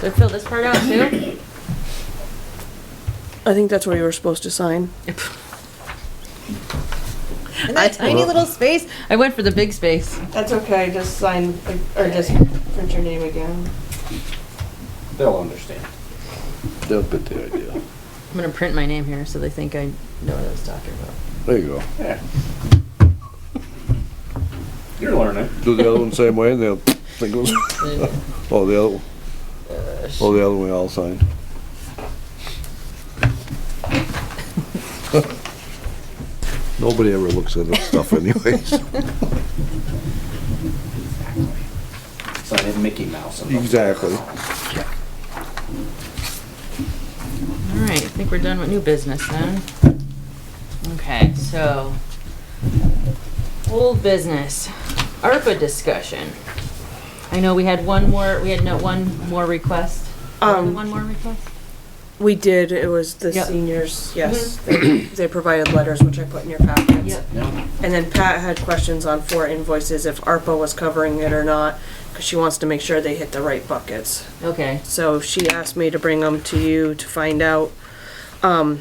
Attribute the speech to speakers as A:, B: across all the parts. A: So fill this part out too?
B: I think that's where you were supposed to sign.
A: In that tiny little space? I went for the big space.
B: That's okay, just sign, or just print your name again.
C: They'll understand.
D: They'll get the idea.
A: I'm gonna print my name here so they think I know what I was talking about.
D: There you go.
C: Yeah. You're learning.
D: Do the other one same way and they'll think it was, oh, the other, oh, the other way I'll sign. Nobody ever looks at this stuff anyways.
C: Sign in Mickey Mouse. and-
D: Exactly.
A: All right, I think we're done with new business then. Okay, so, old business, ARPA discussion. I know we had one more, we had no, one more request.
B: Um,
A: One more request?
B: We did, it was the
A: Yep.
B: seniors, yes. They they provided letters, which I put in your packets.
C: Yeah.
B: And then Pat had questions on four invoices, if ARPA was covering it or not, because she wants to make sure they hit the right buckets.
A: Okay,
B: So she asked me to bring them to you to find out. Um,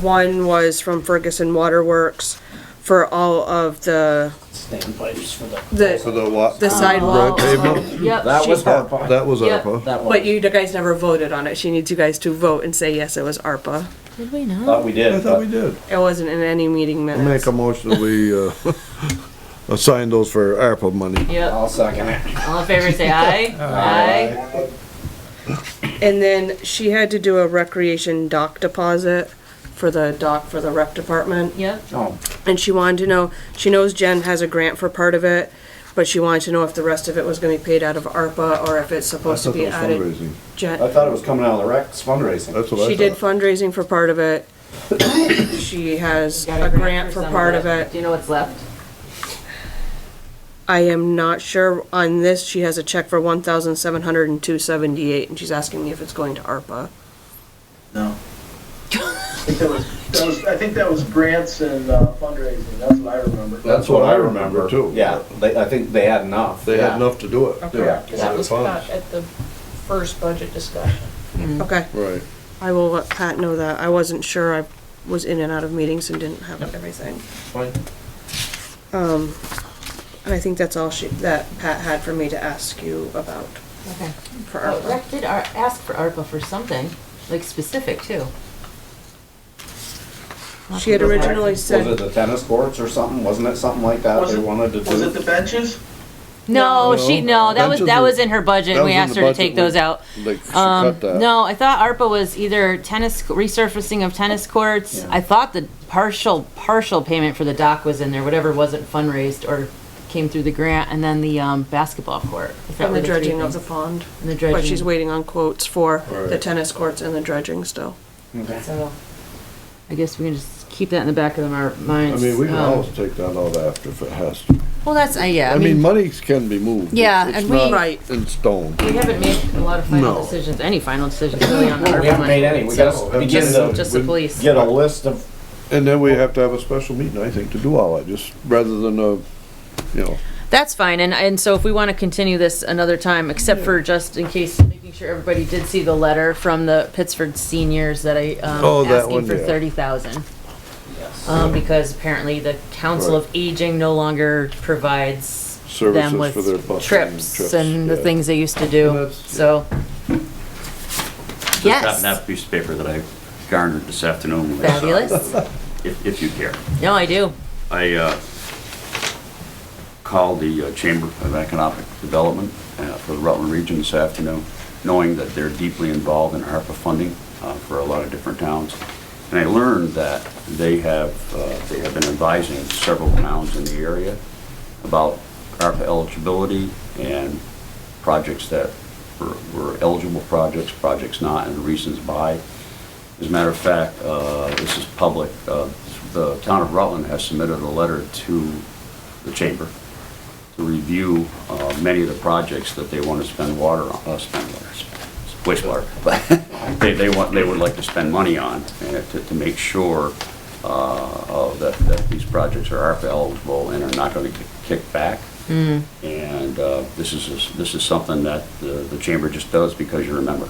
B: one was from Ferguson Waterworks for all of the,
C: Standpipes for the.
D: So
B: the,
D: the Uh, what?
B: the sidewalk.
D: Road pavement?
A: yep.
C: That
A: she-
C: was ARPA.
D: That was
A: Yep.
D: ARPA.
C: That
B: But
C: was.
B: you guys never voted on it. She needs you guys to vote and say, yes, it was ARPA.
A: Did we not?
C: Thought we
D: I
C: did,
D: thought we
C: but
D: did.
B: It wasn't in any meeting
D: I make
B: minutes.
D: a motion that we, uh, assign those for ARPA money.
A: Yep,
C: I'll second it.
A: all in favor, say aye. Aye.
B: And then she had to do a recreation dock deposit for the dock for the rec department.
A: Yep,
C: Oh,
B: And she wanted to know, she knows Jen has a grant for part of it, but she wanted to know if the rest of it was gonna be paid out of ARPA or if it's
D: I
B: supposed to
D: thought
B: be
D: that was
B: added.
D: fundraising.
C: I
B: Jen,
C: thought it was coming out of the Rex fundraising.
D: That's what I thought.
B: she did fundraising for part of it. She has
A: got
B: a grant for
A: some
B: part of it.
A: Do you know what's left?
B: I am not sure on this, she has a check for one thousand seven hundred and two seventy-eight, and she's asking me if it's going to ARPA.
C: No.
E: I think that was, that was, I think that was grants and uh, fundraising, that's what I remember.
D: That's what I remember too.
C: Yeah, they, I think they had enough.
D: They had
C: Yeah.
D: enough to do it.
C: Okay. Yeah,
F: 'cause that was cut at the first budget discussion.
B: Okay,
D: Right.
B: I will let Pat know that. I wasn't sure, I was in and out of meetings and didn't have everything.
C: Fine.
B: Um, and I think that's all she, that Pat had for me to ask you about
A: Okay.
B: for
A: Oh,
B: ARPA.
A: Rec did ar- ask for ARPA for something, like specific too.
B: She had originally
C: Was it
B: said,
C: the tennis courts or something? Wasn't it something like that
E: Was
C: they
E: it-
C: wanted to
E: Was it
C: do?
E: the benches?
A: No,
D: No.
A: she, no, that was,
D: Benches
A: that
D: were-
A: was in her budget,
D: that
A: and we
D: was in
A: asked
D: the
A: her to
D: budget
A: take
D: when-
A: those out.
D: Like, she
A: Um,
D: cut that.
A: no, I thought ARPA was either tennis, resurfacing of tennis courts,
C: Yeah.
A: I thought the partial, partial payment for the dock was in there, whatever wasn't fundraised or came through the grant, and then the, um, basketball court. I thought
B: and
A: were
B: the
A: three
B: dredging of the
A: things.
B: pond,
A: And the
B: but she's
A: dredging.
B: waiting on quotes for the
D: Right.
B: tennis courts and the dredging still.
C: Okay.
A: So, I guess we can just keep that in the back of our minds.
D: I mean, we can
A: Um,
D: always take that out after if it has to.
A: Well, that's, uh, yeah,
D: I mean, monies can be moved.
A: Yeah,
D: It's
A: and we-
D: not
B: Right.
D: In stone.
A: We haven't made a lot of final
D: No.
A: decisions, any final decisions really on the ARPA
C: Well,
A: money.
C: We haven't made any. We
A: so
C: gotta begin
A: Just,
C: to
A: just the police.
C: get a list of,
D: And then we have to have a special meeting, I think, to do all that, just rather than a, you know,
A: That's fine, and, and so if we wanna continue this another time, except for just in case, making sure everybody did see the letter from the Pittsford seniors that I,
D: Oh,
A: um,
D: that
A: asking
D: one,
A: for
D: yeah.
A: thirty thousand. Um, because apparently the Council of Aging no longer provides them
D: Services
A: with
D: for their bus and
A: trips
D: trips,
A: and the
D: yeah.
A: things they used to
D: And
A: do,
D: that's-
A: so.
G: Just
A: Yes,
G: happened to have a piece of paper that I garnered this afternoon. when I saw it,
A: fabulous.
G: If, if you care.
A: No, I do.
G: I uh, called the uh, Chamber of Economic Development uh, for the Rutland Region this afternoon, knowing that they're deeply involved in ARPA funding uh, for a lot of different towns. And I learned that they have, uh, they have been advising several towns in the area about ARPA eligibility and projects that were- were eligible projects, projects not, and reasons why. As a matter of fact, uh, this is public, uh, the town of Rutland has submitted a letter to the chamber to review uh, many of the projects that they want to spend water on, uh, spend water, wastewater, but they, they want, they would like to spend money on, and to, to make sure uh, of that, that these projects are ARPA eligible and are not going to kick back. And uh, this is, this is something that the the chamber just does because you're a member.